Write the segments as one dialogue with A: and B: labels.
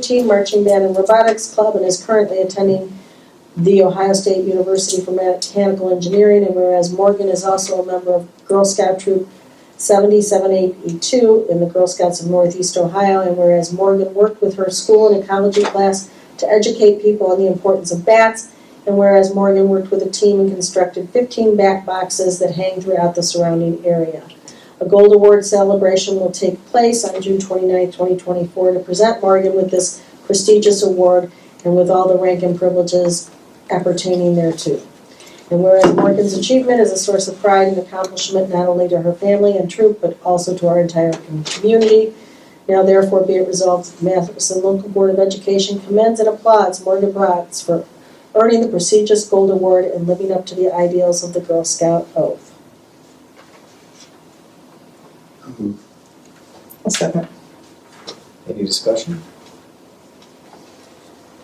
A: Team Marching Band and Robotics Club and is currently attending the Ohio State University for Mechanical Engineering. And whereas Morgan is also a member of Girl Scout Troop 77882 in the Girl Scouts of Northeast Ohio. And whereas Morgan worked with her school in ecology class to educate people on the importance of bats. And whereas Morgan worked with a team and constructed 15 bat boxes that hang throughout the surrounding area. A gold award celebration will take place on June 29, 2024, to present Morgan with this prestigious award and with all the rank and privileges appertaining thereto. And whereas Morgan's achievement is a source of pride and accomplishment not only to her family and troop, but also to our entire community. Now therefore be it resolved, that the Matheson Local Board of Education commends and applauds Morgan Bratz for earning the prestigious gold award and living up to the ideals of the Girl Scout oath.
B: I'll second.
C: Any discussion?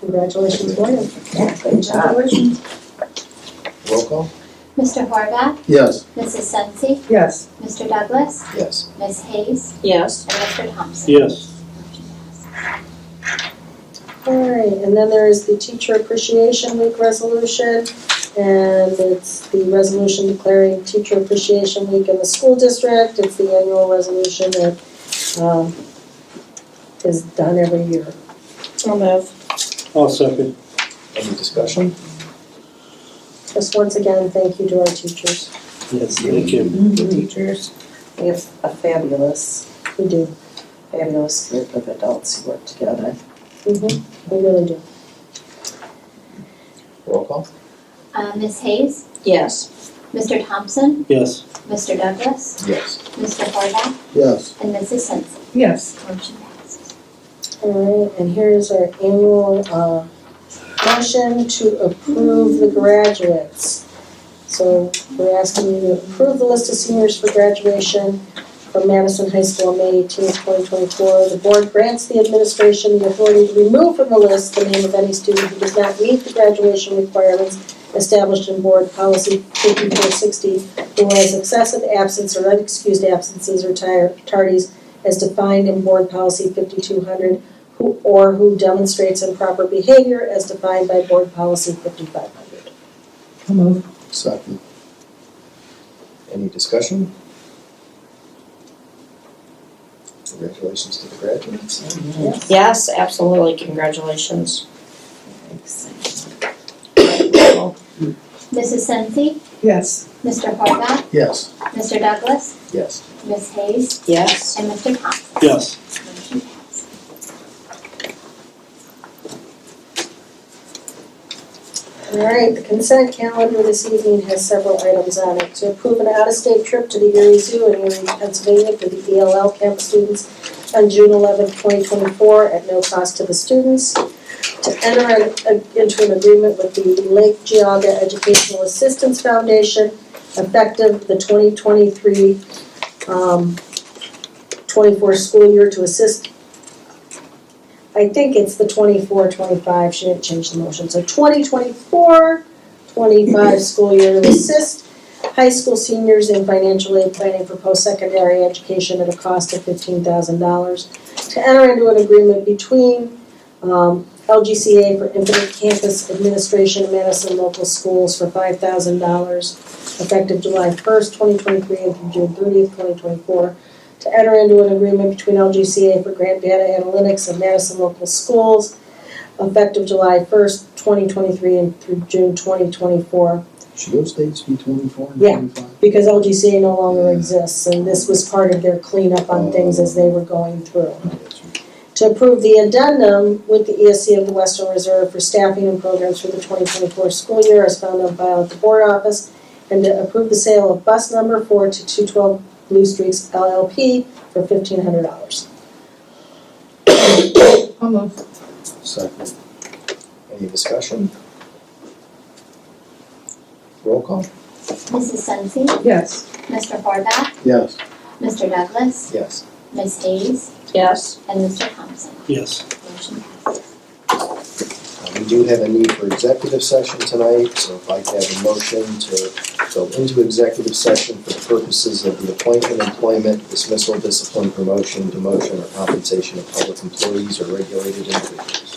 A: Congratulations, Morgan.
B: Yeah, great job.
C: Roll call?
D: Mr. Horvath,
E: Yes.
D: Mrs. Sensi,
B: Yes,
D: Mr. Douglas,
C: Yes.
D: Ms. Hayes,
A: Yes.
D: and Mr. Thompson.
E: Yes.
D: Motion passes.
A: All right, and then there is the Teacher Appreciation Week resolution, and it's the resolution declaring Teacher Appreciation Week in the school district. It's the annual resolution that um, is done every year.
B: I'll move.
E: I'll second.
C: Any discussion?
A: Just once again, thank you to our teachers.
E: Yes, thank you.
B: The teachers,
F: We have a fabulous,
A: We do.
F: fabulous group of adults who work together.
A: We really do.
C: Roll call?
D: Uh, Ms. Hayes,
A: Yes.
D: Mr. Thompson,
E: Yes.
D: Mr. Douglas,
C: Yes.
D: Mr. Horvath,
E: Yes.
D: and Mrs. Sensi.
B: yes,
D: Motion passes.
A: All right, and here's our annual uh, motion to approve the graduates. So we're asking you to approve the list of seniors for graduation from Madison High School on May eighteenth, twenty twenty-four. The board grants the administration the authority to remove from the list the name of any student who does not meet the graduation requirements established in board policy fifty-four sixty, who has excessive absence or unexcused absences or tar- tardies as defined in board policy fifty-two hundred, who, or who demonstrates improper behavior as defined by board policy fifty-five hundred.
B: I'll move.
C: Second. Any discussion? Congratulations to the graduates.
G: Yes, absolutely, congratulations.
D: Mrs. Sensi,
B: Yes,
D: Mr. Horvath,
C: Yes.
D: Mr. Douglas,
C: Yes.
D: Ms. Hayes,
G: Yes,
D: and Mr. Thompson.
E: Yes.
D: Motion passes.
A: All right, the consent calendar this evening has several items on it. To approve an out-of-state trip to the Erie Zoo in Erie, Pennsylvania for the ELL camp students on June eleventh, twenty twenty-four, at no cost to the students. To enter an- a- into an agreement with the Lake Geogga Educational Assistance Foundation effective the twenty twenty-three, um, twenty-four school year to assist I think it's the 24, 25. she didn't change the motion, so 2024, 25 school year to assist high school seniors in financial aid planning for post-secondary education at a cost of fifteen thousand dollars. To enter into an agreement between, um, LGCA for Infinite Campus Administration and Madison Local Schools for five thousand dollars effective July first, twenty twenty-three and through June thirtieth, twenty twenty-four to enter into an agreement between LGCA for grant data analytics and Madison local schools effective July first, twenty twenty-three and through June twenty twenty-four,
C: Should those dates be twenty-four and
A: Yeah.
C: twenty-five?
A: because LGCA no longer exists, and this was part of their cleanup on things as they were going through. To approve the addendum with the ESC of the Western Reserve for staffing and programs for the twenty twenty-four school year as found on file at the board office, and to approve the sale of bus number four to two twelve Blue Streaks LLP for fifteen hundred dollars.
B: I'll move.
C: Second. Any discussion? Roll call?
D: Mrs. Sensi,
B: Yes,
D: Mr. Horvath,
C: Yes.
D: Mr. Douglas,
C: Yes.
D: Ms. Hayes,
G: yes,
D: and Mr. Thompson.
E: Yes.
D: Motion passes.
C: Uh, We do have a need for executive session tonight, so if I could have a motion to go into executive session for the purposes of the appointment, employment, dismissal, discipline, promotion, demotion, or compensation of public employees or regulated individuals.